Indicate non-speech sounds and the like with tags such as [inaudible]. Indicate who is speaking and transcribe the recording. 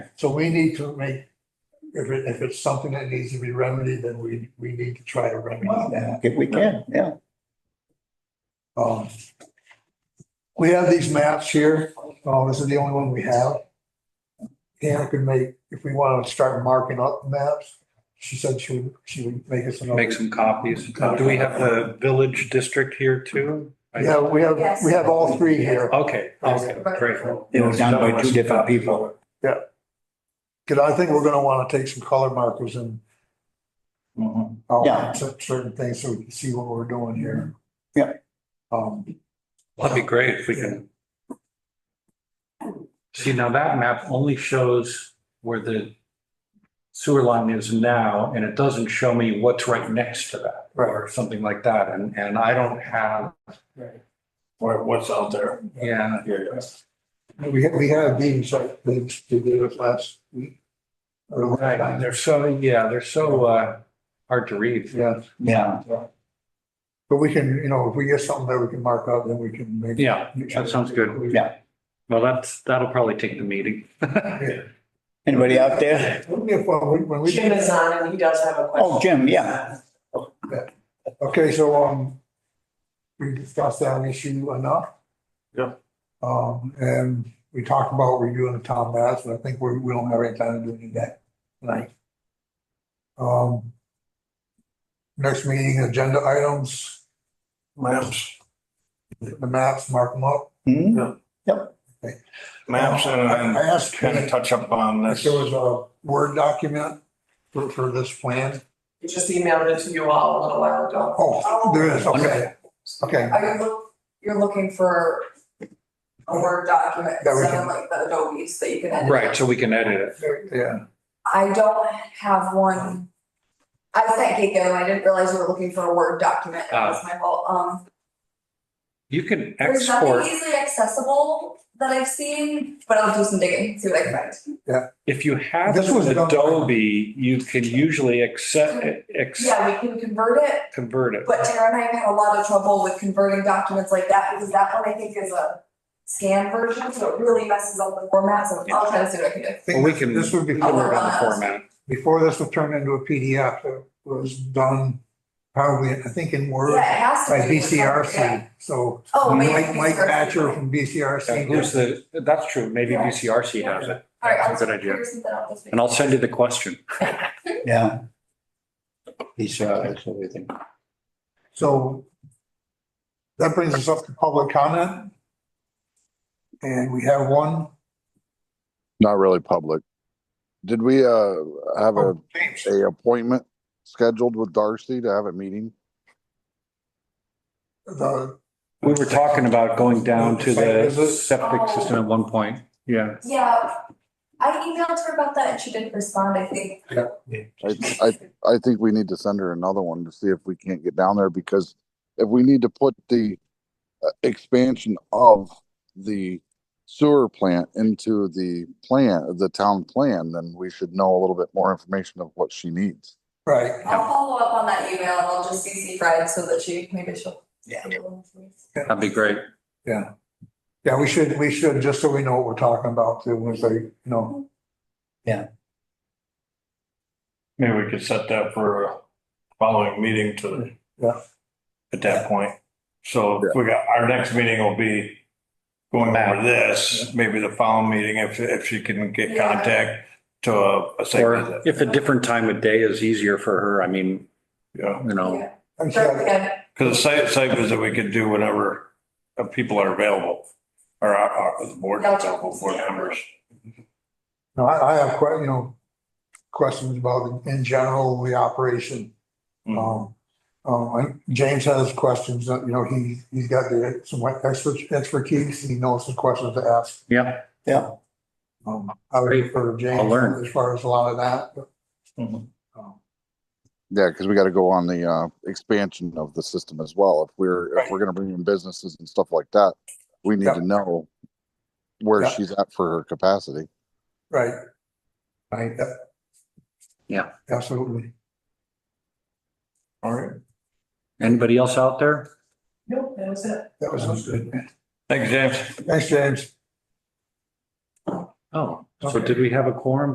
Speaker 1: So we need to make, if it, if it's something that needs to be remedied, then we, we need to try to remedy that.
Speaker 2: If we can, yeah.
Speaker 1: Um, we have these maps here. Uh, this is the only one we have. Hannah could make, if we want to start marking up maps, she said she would, she would make us another.
Speaker 3: Make some copies. Uh, Do we have the village district here too? I-
Speaker 1: Yeah, we have, we have all three here.
Speaker 3: Okay, okay, great.
Speaker 2: It was done by two different people.
Speaker 1: Cause I think we're gonna wanna take some color markers and
Speaker 2: Yeah.
Speaker 1: out cer- certain things so we can see what we're doing here.
Speaker 2: Yeah.
Speaker 1: Um,
Speaker 3: That'd be great if we can. See, now that map only shows where the sewer line is now, and it doesn't show me what's right next to that or something like that. And, and I don't have,
Speaker 4: Or what's out there.
Speaker 3: yeah,
Speaker 4: Yeah, yes.
Speaker 1: we had, we had a meeting, so they just did it last week. Or last
Speaker 3: right.
Speaker 1: time.
Speaker 3: They're so, yeah, they're so, uh, hard to read.
Speaker 1: Yeah,
Speaker 2: Yeah,
Speaker 1: but we can, you know, if we get something that we can mark up, then we can make.
Speaker 3: Yeah, that sounds good.
Speaker 2: Yeah.
Speaker 3: Well, that's, that'll probably take the meeting. [laughs]
Speaker 2: anybody out there?
Speaker 1: It'll be a fun, when- when we,
Speaker 5: Jim is on and he does have a question.
Speaker 2: Oh, Jim, yeah.
Speaker 1: okay, so, um, we discussed that issue enough.
Speaker 4: Yeah.
Speaker 1: Um, and we talked about redoing the town maps, but I think we, we don't have any time to do any of that tonight. Um, next meeting, agenda items.
Speaker 4: Maps,
Speaker 1: the maps, mark them up.
Speaker 2: Hmm?
Speaker 4: maps and
Speaker 1: I I
Speaker 4: and
Speaker 1: asked
Speaker 4: kind of
Speaker 1: Kenny
Speaker 4: touch up on
Speaker 1: if
Speaker 4: this.
Speaker 1: there was a Word document for, for this plan.
Speaker 5: He just emailed it to you all a little while ago.
Speaker 1: Oh, there is, okay, okay.
Speaker 6: Are you, look- you're looking for a Word document,
Speaker 1: That we
Speaker 6: instead
Speaker 1: can-
Speaker 6: of like the Adobe's that you can edit?
Speaker 3: Right, so we can edit it.
Speaker 1: Yeah,
Speaker 6: I don't have one. I was at Geico, I didn't realize we were looking for a Word document, that
Speaker 1: Ah.
Speaker 6: was my fault, um,
Speaker 3: You can
Speaker 6: there's nothing
Speaker 3: export,
Speaker 6: easily accessible that I've seen, but I'll do some digging, see what I can find.
Speaker 3: if you have
Speaker 1: This was done-
Speaker 3: Adobe, you can usually accept, ex-
Speaker 6: Yeah, we can convert it,
Speaker 3: convert it.
Speaker 6: but Tara and I have had a lot of trouble with converting documents like that, because that one I think is a scan version, so it really messes up the format, so I'll try to see what I can do.
Speaker 3: Well, we can-
Speaker 1: This was
Speaker 3: I'll work
Speaker 1: before,
Speaker 3: on the format.
Speaker 1: before this was turned into a PDF, it was done probably, I think in Word
Speaker 6: Yeah, it has to
Speaker 1: by
Speaker 6: be.
Speaker 1: BCRC, so
Speaker 6: Oh, maybe.
Speaker 1: Mike, Mike
Speaker 6: BCRC.
Speaker 1: Batcher from
Speaker 3: Yeah,
Speaker 1: BCRC.
Speaker 3: Who's the, that's true, maybe VCRC has it.
Speaker 6: All right, I'll
Speaker 3: That's a good idea.
Speaker 6: figure something out this week.
Speaker 3: And I'll send you the question.
Speaker 2: Yeah. He's, uh, that's everything.
Speaker 1: So that brings us up to public comment. And we have one.
Speaker 7: Not really public. Did we uh have
Speaker 1: Oh.
Speaker 7: a,
Speaker 1: James.
Speaker 7: a appointment scheduled with Darcy to have a meeting?
Speaker 1: The,
Speaker 3: We were talking about going down to the
Speaker 1: Visit.
Speaker 3: septic system at one point. Yeah.
Speaker 6: Yeah, I emailed her about that and she didn't respond, I think.
Speaker 7: I, I, I think we need to send her another one to see if we can't get down there because if we need to put the uh, expansion of the sewer plant into the plan, the town plan, then we should know a little bit more information of what she needs.
Speaker 1: right.
Speaker 6: I'll follow up on that email and I'll just CC Fred so that she, maybe she'll.
Speaker 2: Yeah.
Speaker 3: That'd be great.
Speaker 1: Yeah, we should, we should, just so we know what we're talking about, too, when we say, you know,
Speaker 4: Maybe we could set that for a following meeting to.
Speaker 1: Yeah.
Speaker 4: At that point. So if we got, our next meeting will be going over this, maybe the following meeting, if, if she can get
Speaker 6: Yeah.
Speaker 4: contact to a a site
Speaker 3: Or
Speaker 4: visit.
Speaker 3: if a different time of day is easier for her, I mean,
Speaker 4: Yeah,
Speaker 3: you know,
Speaker 1: and she
Speaker 6: Sure,
Speaker 1: had-
Speaker 6: again,
Speaker 4: because a site, site visit we could do whenever uh, people are available. Or, uh, uh, the board,
Speaker 6: Yeah.
Speaker 4: available, board members.
Speaker 1: no, I, I have quite, you know, questions about in general, the operation.
Speaker 3: Mm-hmm.
Speaker 1: Um, um, and James has questions that, you know, he, he's got the, some expert, expertise, he knows the questions to ask.
Speaker 3: yeah,
Speaker 1: Um, I would
Speaker 3: Great.
Speaker 1: refer to
Speaker 3: I'll learn.
Speaker 1: James as far as a lot of that, but,
Speaker 4: Mhm.
Speaker 1: um,
Speaker 7: Yeah, because we got to go on the uh, expansion of the system as well. If we're if we're going to bring in businesses and stuff like that, we need
Speaker 1: Yeah.
Speaker 7: to know where
Speaker 1: Yeah.
Speaker 7: she's at for her capacity.
Speaker 1: right. Right, yeah.
Speaker 3: Yeah.
Speaker 1: Absolutely. All right,
Speaker 3: anybody else out there?
Speaker 5: Nope, that was it.
Speaker 1: that was good.
Speaker 4: Thanks, James.
Speaker 1: Thanks, James.
Speaker 3: Oh, so
Speaker 1: Okay.
Speaker 3: did we have a quorum?